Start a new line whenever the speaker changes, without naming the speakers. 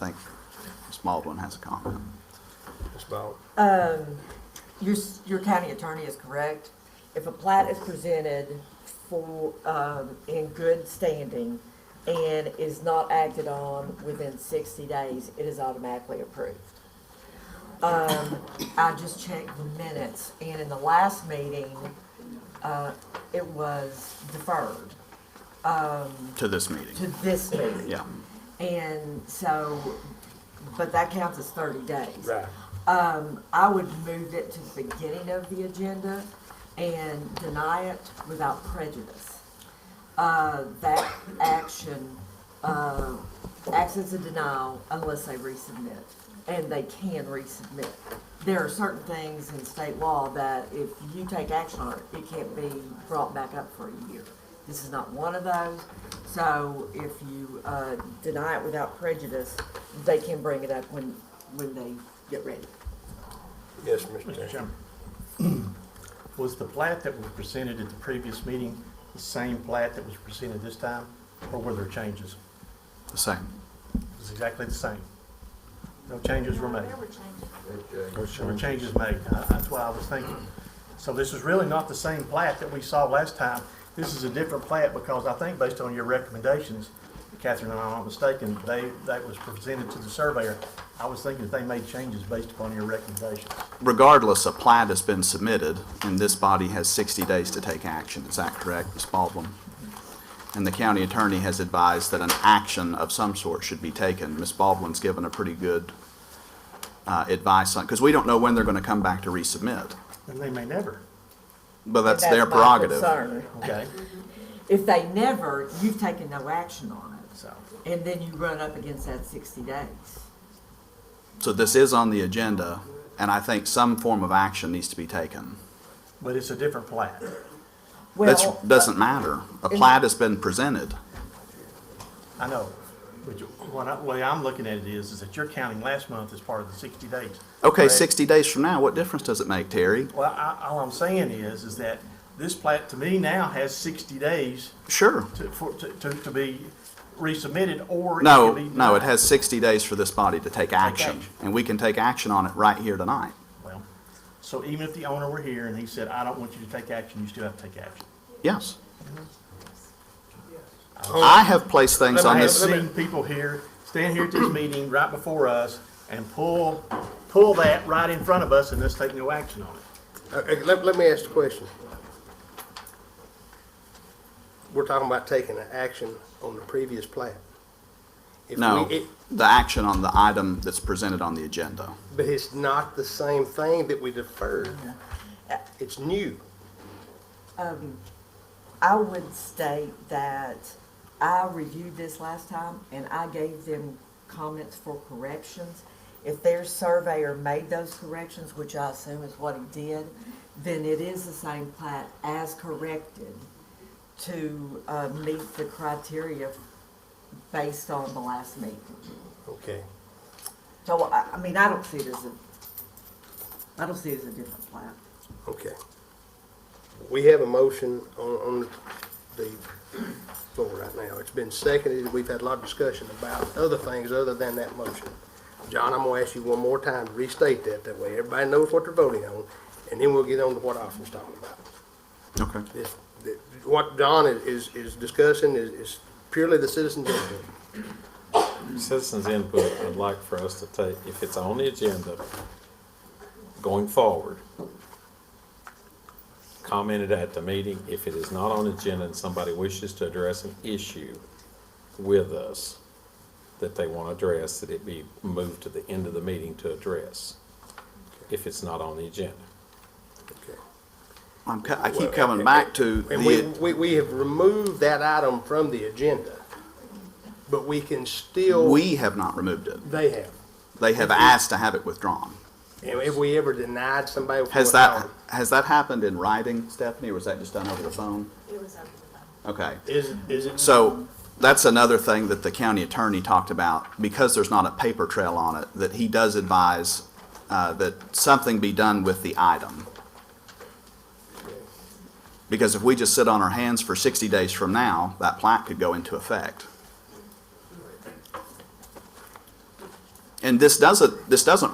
think Ms. Baldwin has a comment.
Ms. Bowden?
Your, s- your county attorney is correct. If a plat is presented for, um, in good standing and is not acted on within sixty days, it is automatically approved. Um, I just checked the minutes and in the last meeting, uh, it was deferred
To this meeting,
to this meeting.
yeah.
And so, but that counts as thirty days.
Right.
Um, I would move it to the beginning of the agenda and deny it without prejudice. Uh, that action, uh, acts as a denial unless they resubmit, and they can resubmit. There are certain things in state law that if you take action on it, it can't be brought back up for a year. This is not one of those, so if you, uh, deny it without prejudice, they can bring it up when, when they get ready.
Yes, Mr.
Mr.
Chairman.
Chairman, was the plat that was presented at the previous meeting the same plat that was presented this time, or were there changes?
The same.
It was exactly the same. No changes were made. There were changes made. Uh, That's why I was thinking. So this is really not the same plat that we saw last time. This is a different plat because I think based on your recommendations, Catherine, and I'm not mistaken, they, that was presented to the surveyor. I was thinking that they made changes based upon your recommendations.
Regardless, a plat has been submitted, and this body has 60 days to take action. Is that correct, Ms. Baldwin? And the county attorney has advised that an action of some sort should be taken. Ms. Baldwin's given a pretty good uh, advice on, because we don't know when they're going to come back to resubmit,
And they may never,
but that's
And
their
my
prerogative.
concern.
okay?
If they never, you've taken no action on
So.
it, and then you run up against that sixty days.
So this is on the agenda, and I think some form of action needs to be taken.
But it's a different plat.
That's,
Well,
doesn't matter. A plat has been presented.
I know. But you- what I, way I'm looking at it is, is that you're counting last month as part of the sixty days.
Okay,
correct?
60 days from now, what difference does it make, Terry?
Well, I, all I'm saying is, is that this plat to me now has sixty days
Sure.
to, for, to, to, to be resubmitted or. it
No,
can be
no, it
denied.
has 60 days for this body to take action,
action.
and we can take action on it right here tonight.
Well, So even if the owner were here and he said, I don't want you to take action, you still have to take action.
Yes. I have placed things
But
on
I have
this,
seen people here, stand here at this meeting right before us and pull, pull that right in front of us and let's take no action on it.
Uh, Let, let me ask the question. We're talking about taking an action on the previous plat. If
no,
we- it-
the action on the item that's presented on the agenda.
But it's not the same thing that we deferred. It's new.
I would state that I reviewed this last time, and I gave them comments for corrections. If their surveyor made those corrections, which I assume is what he did, then it is the same plat as corrected to, uh, meet the criteria based on the last meeting.
Okay.
So, I, I mean, I don't see it as a, I don't see it as a different plan.
Okay. We have a motion on, on the floor right now. It's been seconded, we've had a lot of discussion about other things other than that motion. John, I'm gonna ask you one more time to restate that, that way everybody knows what they're voting on, and then we'll get on to what Austin's talking about.
Okay.
This, that- what John is, is- is discussing is, is purely the citizens input.
Citizens' input, I'd like for us to take, if it's on the agenda, going forward, comment it at the meeting. If it is not on the agenda and somebody wishes to address an issue with us that they want to address, that it be moved to the end of the meeting to address, if it's not on the agenda.
Okay.
I'm, co- I keep coming back to
And we,
the,
we, we have removed that item from the agenda, but we can still,
we have not removed it.
they have.
They have asked to have it withdrawn.
And Have we ever denied somebody? for
Has
a
that,
dollar?
has that happened in writing, Stephanie, or was that just done over the phone?
It was over the phone.
Okay.
Is, is it?
So that's another thing that the county attorney talked about, because there's not a paper trail on it, that he does advise uh, that something be done with the item. Because if we just sit on our hands for 60 days from now, that plat could go into effect. and this doesn't, this doesn't